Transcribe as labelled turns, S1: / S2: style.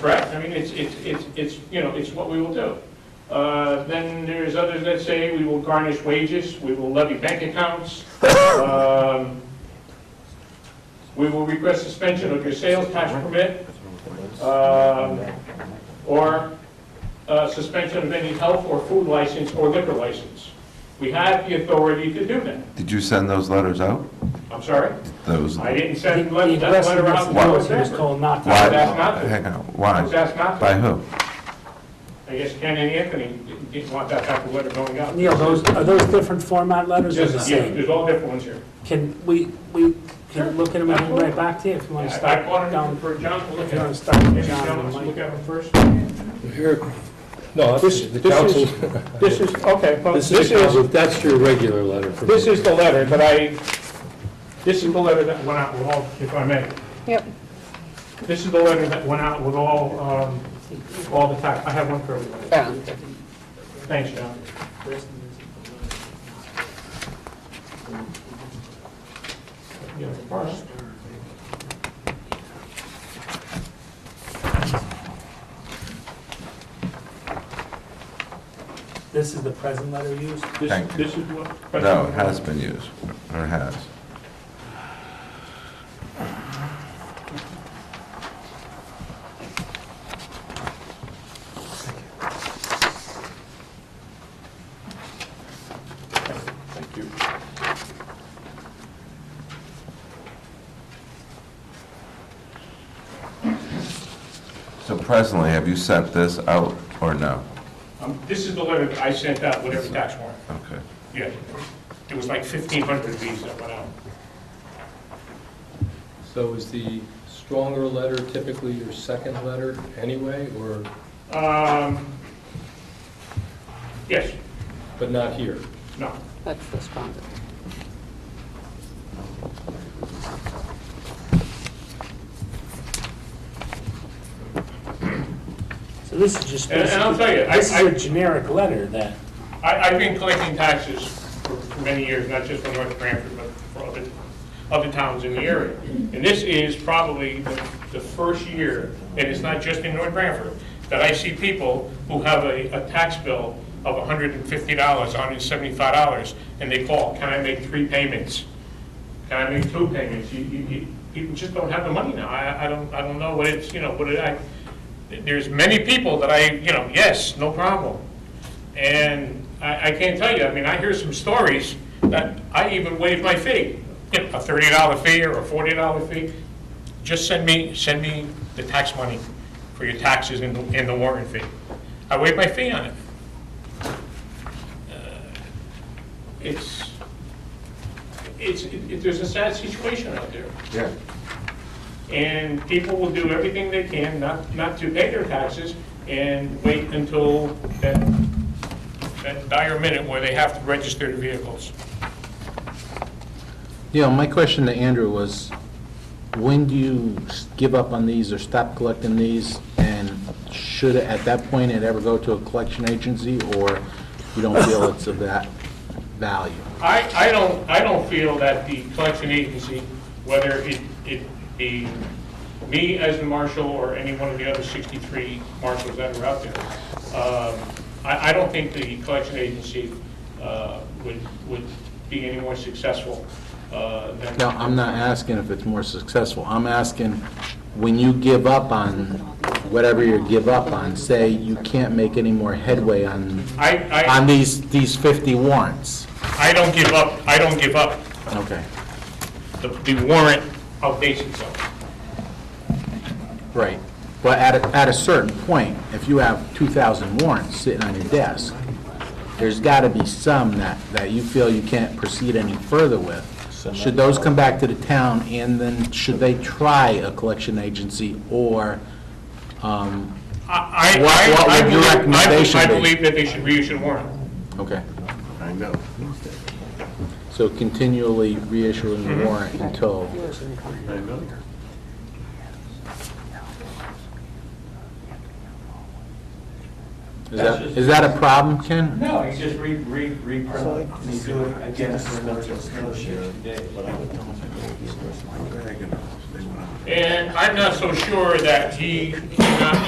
S1: Correct, I mean, it's, it's, it's, it's, you know, it's what we will do. Uh, Then there's others that say we will garnish wages, we will levy bank accounts, um, we will request suspension of your sales tax permit, um, or uh, suspension of any health or food license or liquor license. We have the authority to do that.
S2: Did you send those letters out?
S1: I'm sorry,
S2: Those,
S1: I
S2: why?
S1: didn't
S3: The
S1: send let-
S3: the
S1: that
S3: aggressive
S1: letter out.
S2: Why?
S3: response, he was told not to.
S1: That's not-
S2: Hang on,
S1: I was
S2: why?
S1: asked not to.
S2: By who?
S1: I guess Ken and Anthony didn't- didn't want that type of letter going out.
S3: Neil, those, are those different format letters or the
S1: Yes, yeah,
S3: same?
S1: There's all different ones here.
S3: Can we, we
S1: Sure,
S3: can look at them and
S1: absolutely.
S3: right back to you if you
S1: I
S3: want to
S1: I
S3: start
S1: bought
S3: down.
S1: them for John to look
S3: If you want
S1: at.
S3: to start
S1: Maybe
S3: with John
S1: John
S3: and
S1: wants to look
S3: Mike.
S1: at them first.
S4: No,
S5: This-
S4: this is the
S5: this
S4: council,
S5: is- This is, okay, well,
S4: this is, the council- that's your regular letter from
S5: this
S4: me.
S5: is the letter that I, this is the letter that went out with all, if I may.
S6: Yep.
S5: This is the letter that went out with all, um, all the tax, I have one for everybody. Thanks, John. Yeah, first.
S3: This is the present letter used?
S5: This-
S2: Thank you.
S5: This is what.
S2: No, it has been used, or has.
S5: Thank you.
S2: So presently, have you sent this out or no?
S1: Um, This is the letter that I sent out with every tax warrant.
S2: Okay.
S1: Yeah, it was like 1,500 of these that went out.
S4: So is the stronger letter typically your second letter anyway, or,
S1: Um, Yes,
S4: but not here?
S1: no.
S6: That's the strongest.
S3: So this is just
S1: And- and I'll tell you,
S3: basically,
S1: I-
S3: this is
S1: I-
S3: a generic letter that,
S1: I- I've been collecting taxes for for many years, not just for North Branford, but for other, other towns in the area. And this is probably the the first year, and it's not just in North Branford, that I see people who have a, a tax bill of $150, $175, and they call, can I make three payments? Can I make two payments? You, you, you, people just don't have the money now. I, I don't, I don't know what it's, you know, what it, I, there's many people that I, you know, yes, no problem. And I, I can't tell you, I mean, I hear some stories that I even waived my fee, you know, a thirty dollar fee or a forty dollar fee. Just send me, send me the tax money for your taxes and, the- and the warrant fee. I waived my fee on it. Uh, It's, it's, it, there's a sad situation out there.
S2: Yeah.
S1: And people will do everything they can not, not to pay their taxes and wait until that, that dire minute where they have to register their vehicles.
S7: Yeah, my question to Andrew was, when do you s- give up on these or stop collecting these? And should, it- at that point, it ever go to a collection agency, or you don't feel it's of that value?
S1: I, I don't, I don't feel that the collection agency, whether it, it be me as the marshal or any one of the other 63 marshals that are out there, um, I, I don't think the collection agency uh, would, would be any more successful uh, than.
S7: No, I'm not asking if it's more successful. I'm asking, when you give up on whatever you give up on, say you can't make any more headway on,
S1: I, I.
S7: on these, these 50 warrants.
S1: I don't give up, I don't give up.
S7: Okay,
S1: The the warrant updates itself.
S7: right. But at, a- at a certain point, if you have 2,000 warrants sitting on your desk, there's got to be some that, that you feel you can't proceed any further with. Should those come back to the town, and then should they try a collection agency, or um,
S1: I, I-
S7: What- what
S1: I, I
S7: would your
S1: believe- I believe,
S7: recommendation
S1: I
S7: be?
S1: believe that they should reissue the warrant.
S7: Okay. I know. So continually reissuing the warrant until, is that, is that a problem, Ken?
S8: No, you just re, re, reprint, and you do it again for another, another shift today.
S1: And I'm not so sure that he cannot